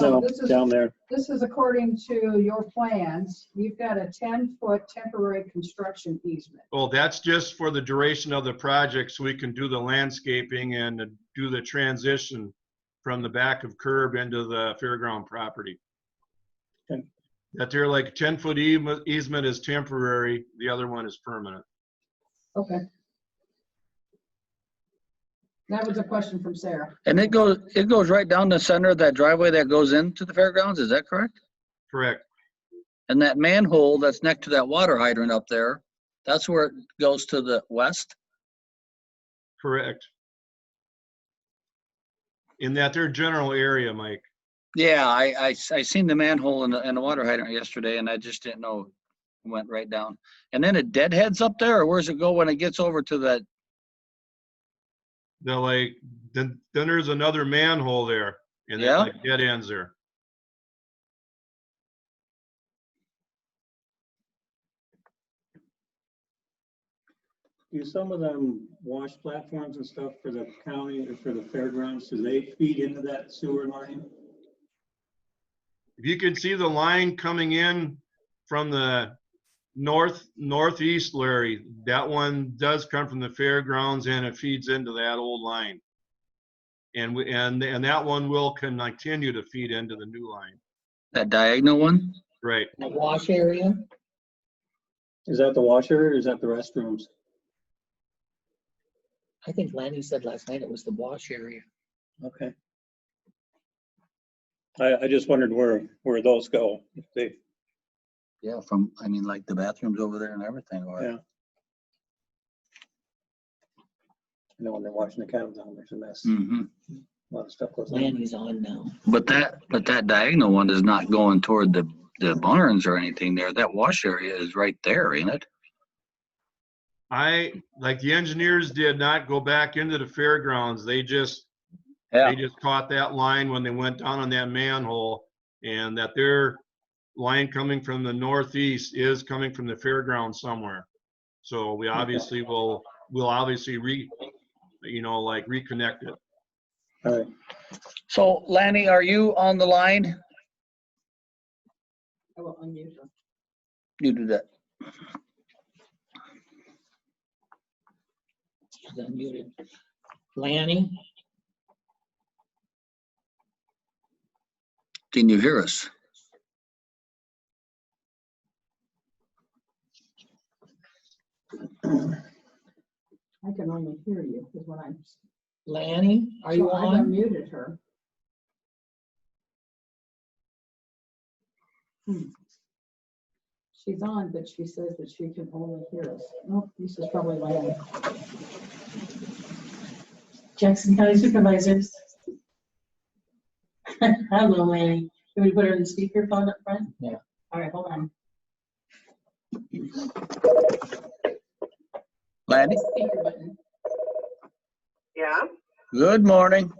No, this is- down there. This is according to your plans. You've got a 10-foot temporary construction easement. Well, that's just for the duration of the project, so we can do the landscaping and do the transition from the back of curb into the fairground property. Okay. That they're like ten-foot easement is temporary, the other one is permanent. Okay. That was a question from Sarah. And it goes, it goes right down the center of that driveway that goes into the fairgrounds, is that correct? Correct. And that manhole that's next to that water hydrant up there, that's where it goes to the west? Correct. In that their general area, Mike. Yeah, I, I, s- I seen the manhole and the, and the water hydrant yesterday and I just didn't know, it went right down. And then it deadheads up there, or where's it go when it gets over to that? They're like, then, then there's another manhole there, and that Yeah. like dead ends there. Do some of them wash platforms and stuff for the county or for the fairgrounds? Do they feed into that sewer line? If you can see the line coming in from the north, northeast, Larry, that one does come from the fairgrounds and it feeds into that old line. And, we and, and that one will can continue to feed into the new line, That diagonal one? right? That wash area? Is that the washer or is that the restrooms? I think Lanny said last night it was the wash area. Okay. I, I just wondered where, where those go. If They, Yeah, from, I mean, like the bathrooms over there and everything, Yeah. or, you know, when they're washing the cattle down, there's a mess. Hmm. A Mhm. lot of stuff goes on. Lanny's on now. But that, but that diagonal one is not going toward the, the barns or anything there. That wash area is right there, ain't it? I, like the engineers did not go back into the fairgrounds. They just, they just caught that line when they went down on that manhole. And that their line coming from the northeast is coming from the fairground somewhere. So we obviously will, we'll obviously re, you know, like reconnect it. All right. So Lanny, are you on the line? I will unmute her. You do that. She's unmuted. Lanny, Can you hear us? I can only hear you is what I'm. Lanny, are you So I on? unmuted her. Hmm. She's on, but she says that she can only hear us. Nope, this is probably Lanny. Jackson County Supervisors. Hello, Lanny. Can we put her in the speakerphone up front? Yeah. All right, hold on. Lanny, Speaker button. Yeah, good morning.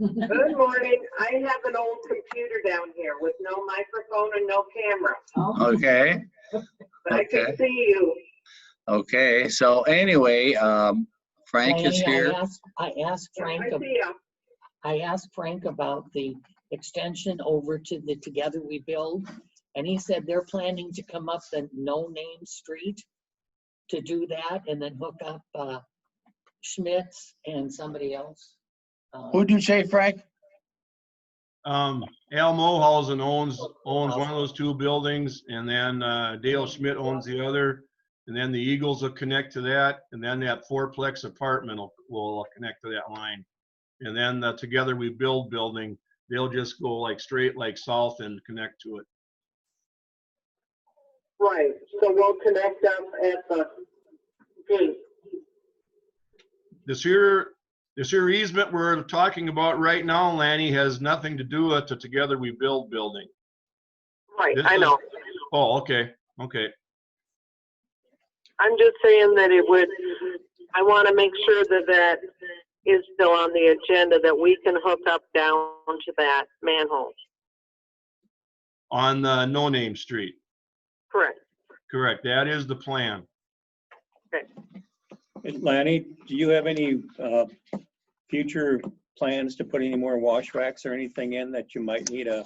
good morning. I have an old computer down here with no microphone and no camera, Oh, Okay, but I Okay. can see you. okay. So anyway, um, Frank is Lanny, I here. asked- I asked Frank, I ab- see you. I asked Frank about the extension over to the Together We Build. And he said they're planning to come up the No Name Street to do that and then hook up uh, Schmitz and somebody else. Uh, Who'd you say, Frank? Um, Al Mohausen owns, owns one of those two buildings and then, uh, Dale Schmidt owns the other. And then the Eagles will connect to that and then that fourplex apartment will, will connect to that line. And then the Together We Build building, they'll just go like straight like south and connect to it. Right, so we'll connect up at the gate. This here, this here easement we're talking about right now, Lanny, has nothing to do with the Together We Build building. Right, This I is- know. Oh, okay, okay. I'm just saying that it would, I want to make sure that that is still on the agenda, that we can hook up down to that manhole. On, uh, No Name Street. Correct. Correct. That is the plan. Lanny, do you have any, uh, future plans to put any more wash racks or anything in that you might need a